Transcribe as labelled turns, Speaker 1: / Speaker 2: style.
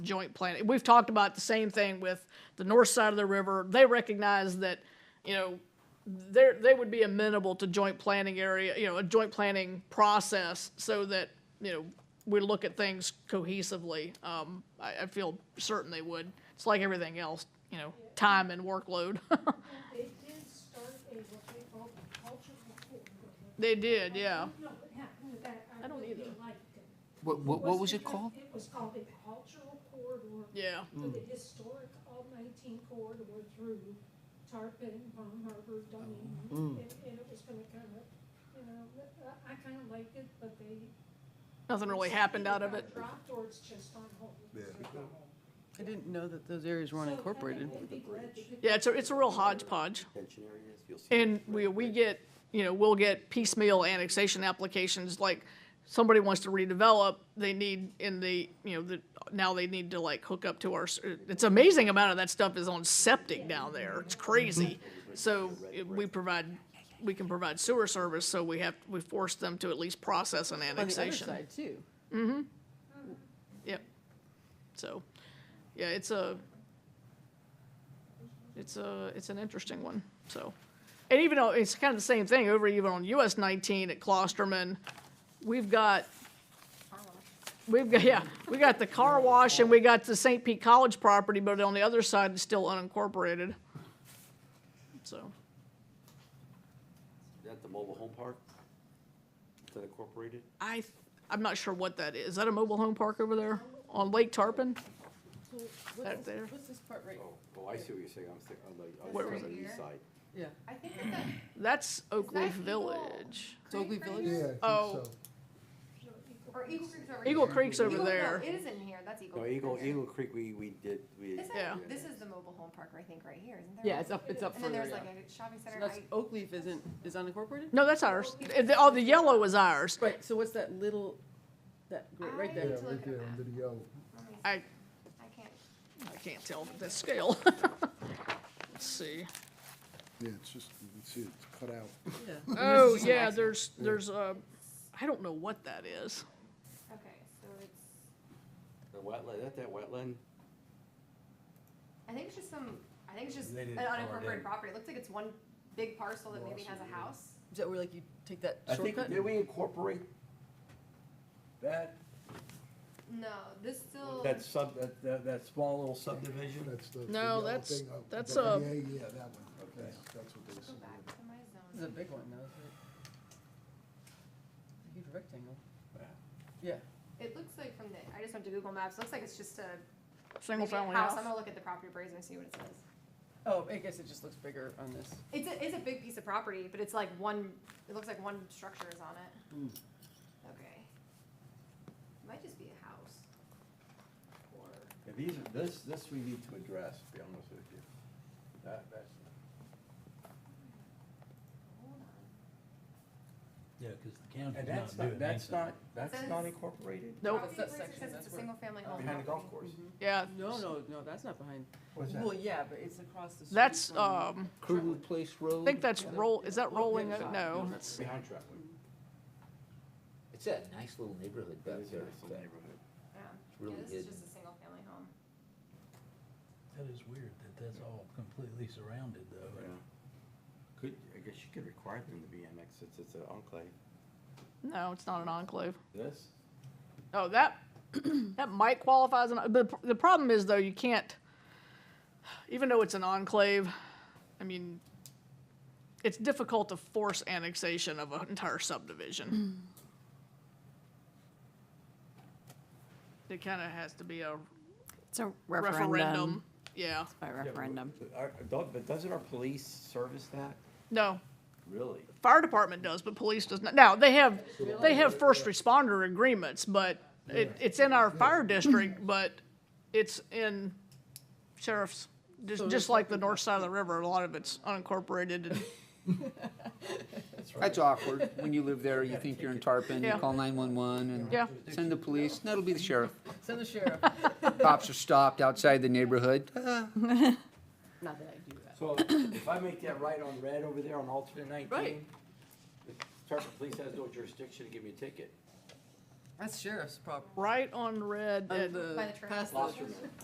Speaker 1: joint planning. We've talked about the same thing with the north side of the river. They recognize that, you know, they're, they would be amenable to joint planning area, you know, a joint planning process so that, you know, we look at things cohesively. Um, I, I feel certain they would. It's like everything else, you know, time and workload.
Speaker 2: They did start a, what they call a culture report.
Speaker 1: They did, yeah.
Speaker 2: No, what happened with that, I
Speaker 1: I don't
Speaker 2: really
Speaker 1: either.
Speaker 2: liked it.
Speaker 3: What, what, what was it
Speaker 2: because
Speaker 3: called?
Speaker 2: It was called the cultural corridor.
Speaker 1: Yeah.
Speaker 2: For the historic all nineteen corridor through Tarpon, Bon Harbor, Dunedin.
Speaker 1: Oh.
Speaker 2: And,
Speaker 1: Hmm.
Speaker 2: and it was gonna kind of, you know, I- I kind of liked it, but they.
Speaker 1: Nothing really
Speaker 2: it's
Speaker 1: happened out
Speaker 2: either
Speaker 1: of
Speaker 2: got
Speaker 1: it.
Speaker 2: Dropped or it's just on hold. It's just on hold.
Speaker 4: I didn't know that those areas weren't
Speaker 2: So I think
Speaker 4: incorporated.
Speaker 2: they'd be glad to get
Speaker 1: Yeah, it's a, it's a real hodgepodge.
Speaker 5: Tension areas, you'll see.
Speaker 1: And we, we get, you know, we'll get piecemeal annexation applications, like, somebody wants to redevelop, they need in the, you know, the, now they need to like hook up to our, s- it's amazing amount of that stuff is on septic down there, it's crazy. So, it- we provide, we can provide sewer service, so we have, we force them to at least process an
Speaker 4: On the other
Speaker 1: annexation.
Speaker 4: side, too.
Speaker 1: Yep. So, yeah, it's a, it's a, it's an interesting one, so. And even though, it's kind of the same thing, over even on US nineteen at Klosterman, we've got, we've got, yeah, we got the car wash and we got the St. Pete College property, but on the other side, it's still unincorporated. So,
Speaker 5: Is that the mobile home park? Is that incorporated?
Speaker 1: I, th- I'm not sure what that is. Is that a mobile home park over there on Lake Tarpon? Out
Speaker 4: What's
Speaker 1: there.
Speaker 4: this- what's this part right?
Speaker 5: Oh, oh, I see what you're saying, I'm thinking, I'm like, I
Speaker 1: Where
Speaker 5: was
Speaker 1: was
Speaker 5: thinking on the east
Speaker 6: it?
Speaker 5: side.
Speaker 4: Yeah.
Speaker 6: I think that that
Speaker 1: That's Oak
Speaker 6: that
Speaker 1: Leaf
Speaker 6: Eagle?
Speaker 1: Village.
Speaker 4: It's Oakley
Speaker 6: creek right
Speaker 4: Village?
Speaker 6: here?
Speaker 7: Yeah, I think
Speaker 1: Oh.
Speaker 7: so.
Speaker 2: your equal-
Speaker 6: Or Eagle Creek's over here.
Speaker 1: Eagle Creek's over
Speaker 6: Eagle- no,
Speaker 1: there.
Speaker 6: It is in here, that's Eagle.
Speaker 5: No,
Speaker 6: Creek
Speaker 5: Eagle,
Speaker 6: right here.
Speaker 5: Eagle Creek, we, we did, we.
Speaker 6: This is,
Speaker 1: Yeah.
Speaker 6: this is the mobile home park, I think, right here, isn't there?
Speaker 4: Yeah, it's up, it's up
Speaker 6: And then
Speaker 4: further,
Speaker 6: there's
Speaker 4: yeah.
Speaker 6: like a shopping
Speaker 4: So
Speaker 6: center.
Speaker 4: that's,
Speaker 6: I-
Speaker 4: Oakleaf isn't, is unincorporated?
Speaker 1: No, that's ours. Uh, the- Oh, the yellow is ours.
Speaker 4: Right, so what's that little, that, gr- right
Speaker 6: I-
Speaker 7: Yeah,
Speaker 4: there?
Speaker 6: to
Speaker 7: right
Speaker 6: look at
Speaker 7: there
Speaker 6: that.
Speaker 7: under the yellow.
Speaker 6: let me see.
Speaker 1: I,
Speaker 6: I can't,
Speaker 1: I can't tell the scale. Let's see.
Speaker 7: Yeah, it's just, you can see it's cut out.
Speaker 4: Yeah.
Speaker 1: Oh, yeah, there's, there's, uh, I don't know what that is.
Speaker 6: okay, so it's,
Speaker 5: The wetland, is that that wetland?
Speaker 6: I think it's just some, I think it's just
Speaker 5: They
Speaker 6: an
Speaker 5: didn't call it in.
Speaker 6: unincorporated property. It looks like it's one big parcel that maybe has a house.
Speaker 4: Is that where like you take that
Speaker 5: I think,
Speaker 4: shortcut?
Speaker 5: did we incorporate that,
Speaker 6: No, this still,
Speaker 5: that sub, that- that, that small little subdivision?
Speaker 7: That's the. the
Speaker 1: No,
Speaker 7: yellow
Speaker 1: that's-
Speaker 7: thing up.
Speaker 1: that's,
Speaker 7: Yeah,
Speaker 1: uh,
Speaker 7: Yeah, yeah, that one. Okay, that's what they
Speaker 6: go back
Speaker 7: said.
Speaker 6: to my zone.
Speaker 4: This is a big one, though, isn't it? It's a Huge rectangle.
Speaker 5: Yeah.
Speaker 4: Yeah,
Speaker 6: It looks like from the, I just went to Google Maps, looks like it's just a,
Speaker 1: Single
Speaker 6: maybe a
Speaker 1: family
Speaker 6: house.
Speaker 1: house.
Speaker 6: I'm gonna look at the property appraiser and see what it says.
Speaker 4: oh, I guess it just looks bigger on this.
Speaker 6: It's a, it's a big piece of property, but it's like one, it looks like one structure is on it. Okay. Might just be a house. Or,
Speaker 5: Yeah, These, are- this, this we need to address, to be honest with you. That, that's.
Speaker 6: hold on.
Speaker 8: Yeah, because the county's
Speaker 5: And
Speaker 8: not
Speaker 5: that's
Speaker 8: doing
Speaker 5: not,
Speaker 8: anything.
Speaker 5: that's not, that's
Speaker 6: Says-
Speaker 5: not incorporated?
Speaker 1: Nope,
Speaker 6: Property
Speaker 4: that
Speaker 6: appraiser
Speaker 4: section,
Speaker 6: says
Speaker 4: that's
Speaker 6: it's a
Speaker 4: where-
Speaker 6: single family home.
Speaker 5: Behind the golf
Speaker 6: property.
Speaker 5: course?
Speaker 1: yeah.
Speaker 4: Mm-hmm. No, no, no, that's not behind.
Speaker 5: What's that?
Speaker 4: Well, yeah, but it's across the street.
Speaker 1: That's,
Speaker 4: from-
Speaker 3: uh,
Speaker 1: um,
Speaker 3: Crew Place Road?
Speaker 1: I think that's roll, is that rolling? Oak? No, that's,
Speaker 5: Behind Trapwood.
Speaker 3: It's that nice little neighborhood
Speaker 5: That
Speaker 3: back
Speaker 5: is a
Speaker 3: there.
Speaker 5: nice little neighborhood.
Speaker 6: Yeah.
Speaker 3: really
Speaker 6: Yeah, this is
Speaker 3: hidden.
Speaker 6: just a single family home.
Speaker 8: That is weird that that's all completely surrounded though.
Speaker 5: Yeah. Could, I guess you could require them to be annexed, it's, it's an enclave.
Speaker 1: no, it's not an enclave.
Speaker 5: This?
Speaker 1: Oh, that, that might qualify as an, the, the problem is though, you can't, even though it's an enclave, I mean, it's difficult to force annexation of an entire
Speaker 9: Hmm.
Speaker 1: subdivision. It kinda has to be a
Speaker 9: It's a
Speaker 1: referendum,
Speaker 9: referendum.
Speaker 1: yeah,
Speaker 9: By referendum.
Speaker 5: But doesn't our police service that?
Speaker 1: no,
Speaker 5: Really?
Speaker 1: fire department does, but police does not, now, they have, they have first responder agreements, but it, it's in our fire district, but it's in sheriff's,
Speaker 4: So
Speaker 1: just,
Speaker 4: it's
Speaker 1: just like the
Speaker 4: like-
Speaker 1: north side of the river, a lot of it's unincorporated and
Speaker 3: That's awkward. When you live there, you think you're in Tarpon, you
Speaker 1: Yeah.
Speaker 3: call 911
Speaker 1: Yeah.
Speaker 3: and send the police. That'll be the sheriff.
Speaker 4: Send the sheriff.
Speaker 3: Cops are stopped outside the neighborhood. Ah.
Speaker 4: Not that I do that.
Speaker 5: So if I make that right on red over there on alternate nineteen,
Speaker 4: Right.
Speaker 5: the Tarpon Police has no jurisdiction to give me a ticket.
Speaker 4: That's sheriff's property.
Speaker 10: right on red at
Speaker 4: On the
Speaker 1: By the trash.
Speaker 4: past the
Speaker 6: Lobster.